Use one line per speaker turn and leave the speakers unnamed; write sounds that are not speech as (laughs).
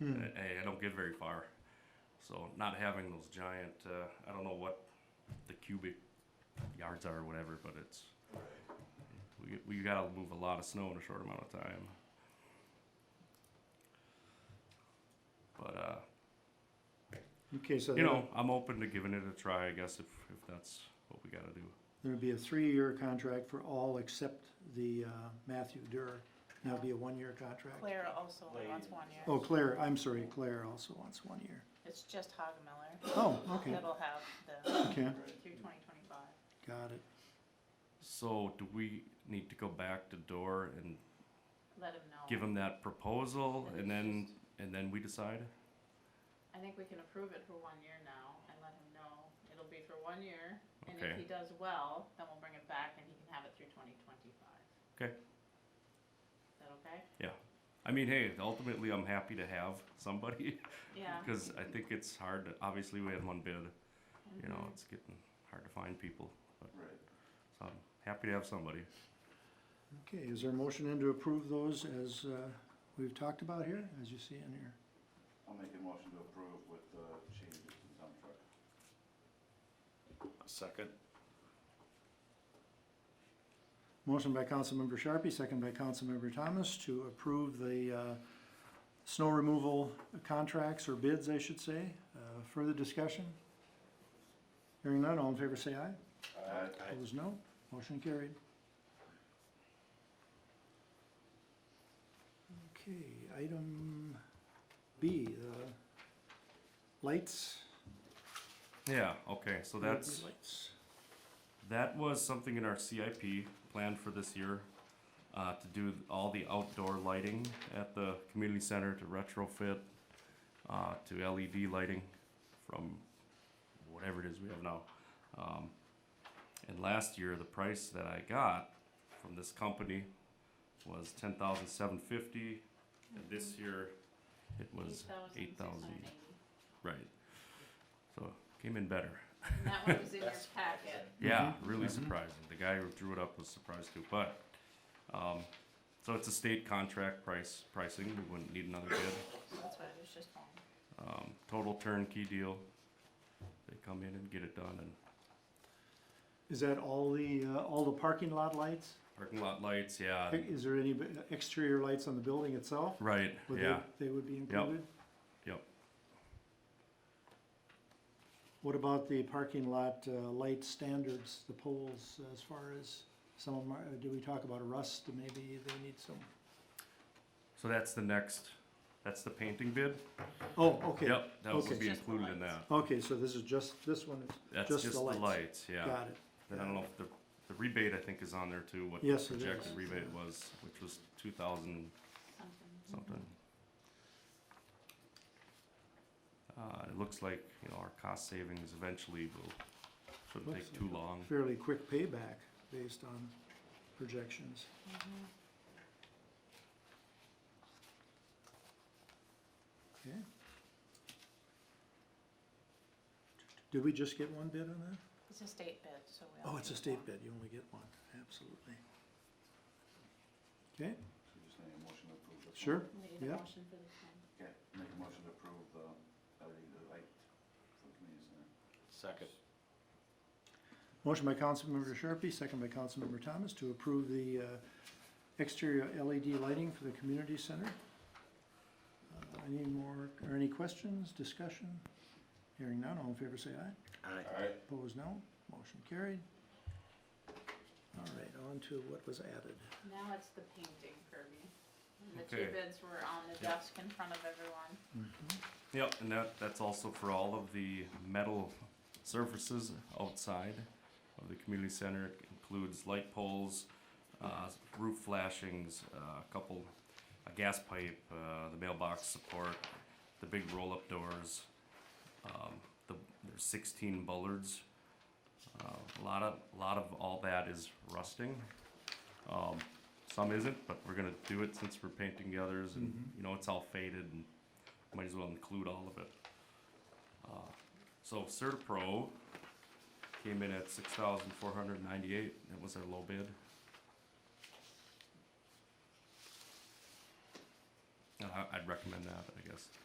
And I, I don't get very far. So not having those giant, uh, I don't know what the cubic yards are or whatever, but it's, we, we gotta move a lot of snow in a short amount of time. But, uh,
Okay, so
you
there
know, I'm open to giving it a try, I guess, if, if that's what we gotta do.
would be a three-year contract for all except the uh, Matthew Durr. That would be a one-year contract.
Claire also only wants one year.
Oh, Claire, I'm sorry, Claire also wants one year.
It's just Hagemeller.
Oh, okay,
That'll have the,
okay,
through twenty twenty-five.
got it.
So do we need to go back to Door and
Let him know.
give him that proposal and then, and then we decide?
I think we can approve it for one year now and let him know. It'll be for one year. And if
Okay.
he does well, then we'll bring it back and he can have it through twenty twenty-five.
Okay.
Is that okay?
I mean, hey, ultimately, I'm happy to have somebody (laughs)
Yeah.
because I think it's hard. To, obviously, we had one bid. You know,
Mhm.
it's getting hard to find people.
Right.
So I'm happy to have somebody.
Okay, is there a motion then to approve those as uh, we've talked about here, as you see in here?
I'll make a motion to approve with the changes to the dump truck.
Second.
Motion by Councilmember Sharpie, second by Councilmember Thomas to approve the uh, snow removal contracts or bids, I should say. Uh, Further discussion? Hearing none, all in favor say aye.
Aye.
Opposed, no. Motion carried. Okay, item B, the lights.
Yeah. Okay. So that's
Lights.
that was something in our CIP plan for this year uh, to do all the outdoor lighting at the community center to retrofit uh, to LED lighting from whatever it is we have now. Um, and last year, the price that I got from this company was ten thousand seven fifty, and this year it was Mm-hmm. eight thousand.
8,680.
Right. So came in better.
And that one was in your packet.
Yeah,
Mm-hmm.
really surprising. The guy who drew it up was surprised too, but, um, so it's a state contract price, pricing, we wouldn't need another bid.
That's what I was just on.
Um, total turnkey deal. They come in and get it done and
Is that all the, uh, all the parking lot lights?
parking lot lights, yeah,
Is there any exterior lights on the building itself?
right,
Would they-
yeah,
They would be included?
yep.
What about the parking lot, uh, light standards, the poles, as far as some of them, are- do we talk about rust, maybe they need some?
So that's the next, that's the painting bid?
Oh, okay.
Yep, that
Okay.
would be
Just the
included in that.
lights.
Okay, so this is just, this one is,
That's
Just
just
the
the
lights.
lights, yeah.
got it.
And I don't know if the, the rebate I think is on there too, what the
Yes, it
projected
is.
rebate was, which was two thousand
Something.
something. Uh, it looks like, you know, our cost savings eventually will, shouldn't
Looks
take too long.
Fairly quick payback based on projections.
Mm-hmm.
Okay. Did we just get one bid on that?
It's a state bid, so we. all
Oh, it's a
get
state
one.
bid, you only get one, absolutely. Okay,
So you just need a motion to approve this one?
sure,
Need a
Yep.
motion for this one.
Okay, make a motion to approve the LED light for the community center.
Second.
motion by Councilmember Sharpie, second by Councilmember Thomas to approve the uh, exterior LED lighting for the community center. Uh, Any more, or any questions, discussion? Hearing none, all in favor say aye.
Aye.
Alright.
Opposed, no. Motion carried. All right, on to what was added.
Now it's the painting, Kirby. And The two
Okay.
bids were on the desk in front of everyone.
Yep, and that, that's also for all of the metal surfaces outside of the community center. It includes light poles, uh, roof flashings, uh, a couple, a gas pipe, uh, the mailbox support, the big roll-up doors. Um, the, there's sixteen bullards. Uh, a lot of, a lot of all that is rusting. Um, some isn't, but we're gonna do it since we're painting the others and, you know, it's all faded and might as well include all of it. Uh, So Certapro came in at six thousand four hundred ninety-eight, that was our low bid. Uh, I- I'd recommend that, I guess.